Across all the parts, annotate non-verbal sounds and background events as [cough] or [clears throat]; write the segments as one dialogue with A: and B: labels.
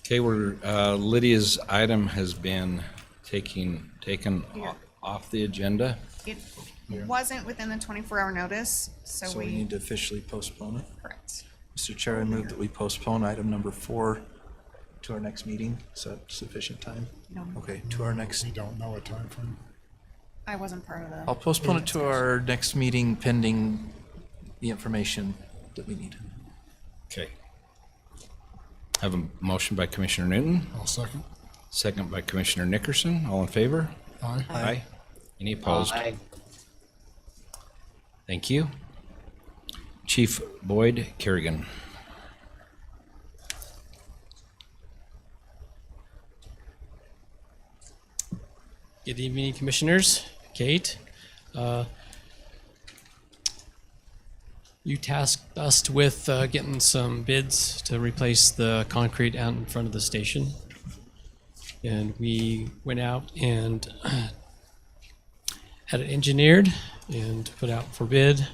A: Okay, we're, uh, Lydia's item has been taking, taken o- off the agenda.
B: It wasn't within the twenty-four hour notice, so
C: So we
B: we,
C: need to officially postpone it.
B: correct.
C: Mr. Chair, I move that we postpone item number four to our next meeting. Is that sufficient time?
B: No.
C: Okay, to our next,
D: We don't know a time frame.
B: I wasn't part of
E: Oh.
B: the,
C: I'll postpone it to our next meeting pending the information that we need.
A: Okay. Have a motion by Commissioner Newton,
D: I'll second.
A: second by Commissioner Nickerson. All in favor?
D: Aye.
A: Aye. Any opposed?
F: Aye.
A: Thank you. Chief Boyd Kerrigan.
E: Good evening, Commissioners. Kate, uh, you tasked us with uh, getting some bids to replace the concrete out in front of the station. And we went out and [clears throat] had it engineered and put out for bid.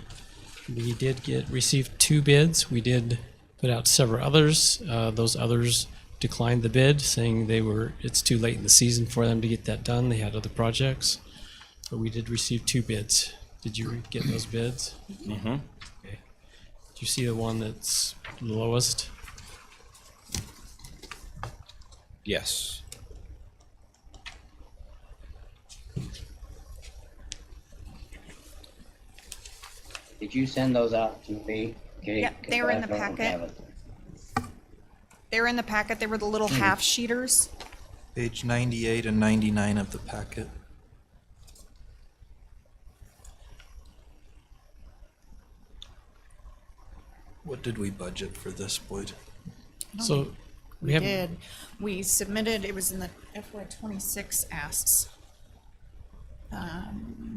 E: We did get, received two bids. We did put out several others. Uh, those others declined the bid, saying they were, it's too late in the season for them to get that done. They had other projects. But we did receive two bids. Did you re- get those bids? Mm-hmm. Okay. Did you see the one that's lowest?
A: Yes.
F: Did you send those out to me? Kate?
B: Yeah, they
F: 'Cause
B: were
F: I
B: in the
F: don't
B: packet.
F: have it.
B: they were in the packet, they were the
C: Hmm.
B: little half sheeters.
C: Page 98 and 99 of the packet. What did we budget for this, Boyd?
E: So we haven't.
B: Did, we submitted, it was in the FY twenty-six asks.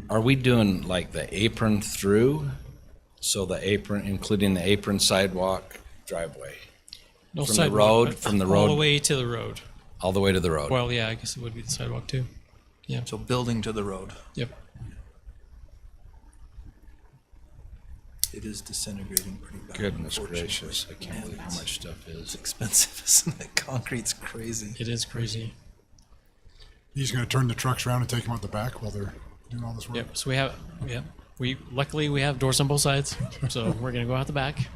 A: Are we doing like the apron through? So the apron, including the apron sidewalk driveway,
E: No
A: From the
E: sidewalk,
A: road-
E: but
A: from the
E: All
A: road.
E: the way to the road.
A: all the way to the road?
E: Well, yeah, I guess it would be the sidewalk too. Yeah,
C: So building to the road,
E: yep.
C: it is disintegrating pretty bad.
A: Goodness
C: unfortunately.
A: gracious, I can't believe how much
C: [laughs]
A: stuff is.
C: Expensive, isn't it? Concrete's crazy.
E: It is crazy.
D: He's gonna turn the trucks around and take them out the back while they're doing all this work.
E: Yep. So we have, yep. We luckily we have doors on both sides, so we're gonna go out the back.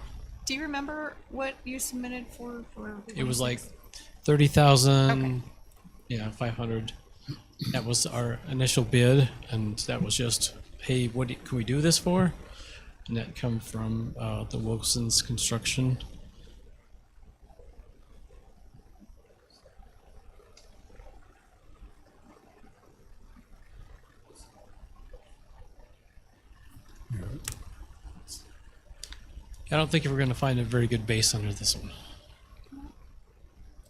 B: Do you remember what you submitted for, for? the
E: It was like
B: 26?
E: thirty thousand, yeah, five hundred. That was our initial bid, and that was just, hey, what do- can we do this for? And that come from uh, the Wilson's Construction. I don't think we're gonna find a very good base under this one.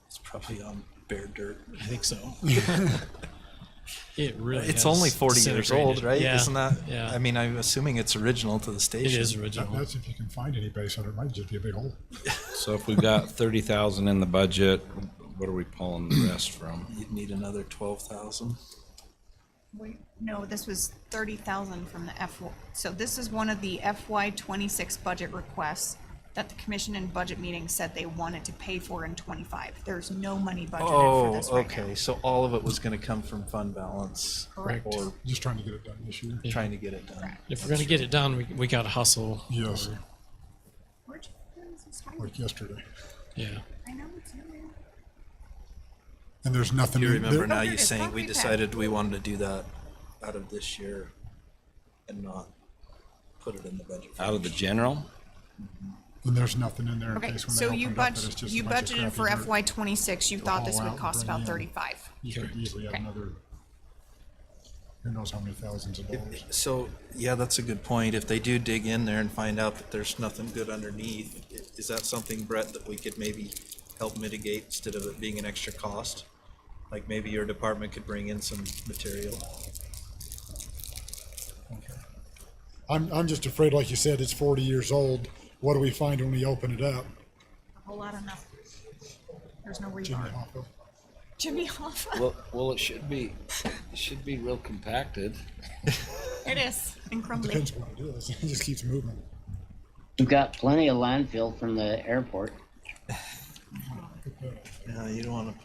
C: It's probably on bare dirt.
E: I think so. it really.
C: It's
E: has
C: only 40 years old,
E: disintegrated.
C: right?
E: Yeah.
C: Isn't that?
E: Yeah.
C: I mean, I'm assuming it's original to the
E: it
C: station.
E: is original.
D: That's if you can find any base under it. Might just be a big hole.
A: So if we've got thirty thousand in the budget, what are we pulling the rest from?
C: You'd need another 12,000.
B: Wait, no, this was thirty thousand from the F, so this is one of the FY twenty-six budget requests that the commission and budget meeting said they wanted to pay for in twenty-five. There's no money budgeted for
C: Oh,
B: this right now.
C: okay. So all of it was going to come from fund balance
B: Correct.
C: or
D: Just trying to get it done this year.
C: trying to get it done.
E: If we're gonna get it done, we, we gotta hustle.
B: Where'd
D: Yes,
B: you- where is this highway?
D: like yesterday.
E: Yeah.
B: I know it's nowhere.
D: And there's nothing.
C: You
D: in-
C: remember
D: there-
C: now
B: Oh,
C: you
B: it's
C: saying we
B: concrete pad.
C: decided we wanted to do that out of this year and not put it in the budget.
A: Out of the general?
D: And there's nothing in there in
B: Okay,
D: case when they
B: so you
D: opened up that it's
B: budget,
D: just a
B: you
D: bunch of
B: budgeted for
D: crappy dirt.
B: FY twenty-six, you thought this
D: haul
B: would
D: out and
B: cost
D: bring
B: about
D: in.
B: thirty-five.
D: You could easily have
B: Okay.
D: another, who knows how many thousands of dollars.
C: So, yeah, that's a good point. If they do dig in there and find out that there's nothing good underneath, i- is that something, Brett, that we could maybe help mitigate instead of it being an extra cost? Like maybe your department could bring in some material?
D: Okay. I'm, I'm just afraid, like you said, it's forty years old. What do we find when we open it up?
B: A whole lot of nothing. There's no
D: Jimmy
B: rebar.
D: Hoffa?
B: Jimmy Hoffa,
A: Well, well, it should be, it should be real compacted.
B: it is, and
D: [laughs]
B: crumbly.
D: Depends what it is. It just keeps moving.
F: You got plenty of landfill from the airport.
D: Yeah, you don't want to